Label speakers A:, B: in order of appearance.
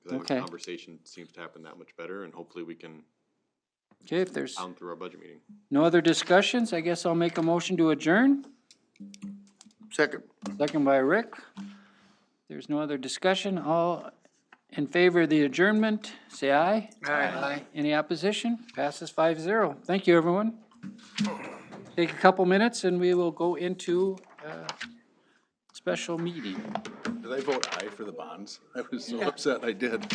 A: when
B: Okay.
A: conversation seems to happen that much better, and hopefully we can
B: Okay, if there's
A: pound through our budget meeting.
B: no other discussions, I guess I'll make a motion to adjourn.
C: Second.
B: Second by Rick. There's no other discussion. All in favor of the adjournment, say aye. Aye. Any opposition? Passes five zero. Thank you, everyone. Take a couple minutes and we will go into uh, special meeting.
C: Did I vote aye for the bonds? I was so upset I did.